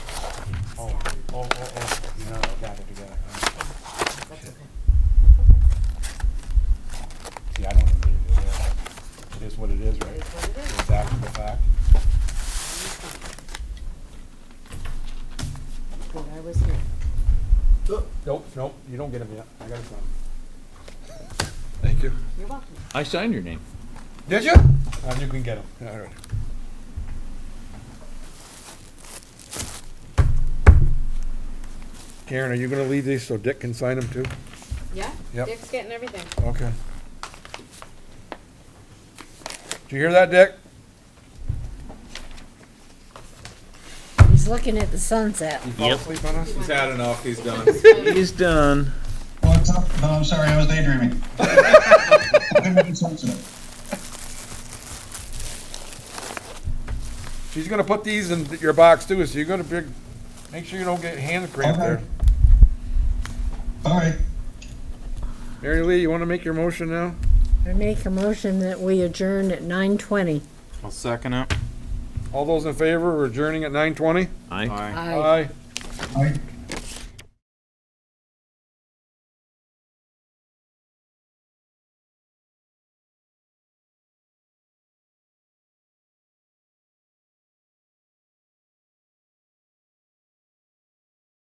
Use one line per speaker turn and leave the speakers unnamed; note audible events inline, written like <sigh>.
Oh, oh, oh, no, I got it together.
That's okay.
See, I don't believe it is. It is what it is,
It
right?
is what it is.
It's after the fact.
Good, I was here.
Nope, nope, you don't get him yet. I got him.
Thank you.
You're welcome.
I signed your name.
Did you? Uh, you can get him. All right.
Karen, are you gonna leave these so Dick can sign them too?
Yeah?
Yep.
Dick's getting <laughs> everything.
Okay. Did you hear that, Dick?
He's looking at the sunset.
You fall
Yep.
asleep on us?
He's
had enough, he's done.
He's done.
What's up? No, I'm sorry, I was daydreaming. <laughs> Couldn't make sense of it.
She's gonna put these in your box too, so you're gonna big, make sure you don't get hand cramped there.
Okay. All right.
Mary Lee, you wanna make your motion now?
I make a motion that we adjourn at nine twenty.
I'll second it.
All those in favor, we're adjourning at nine twenty?
I.
Aye.
Aye.
All right.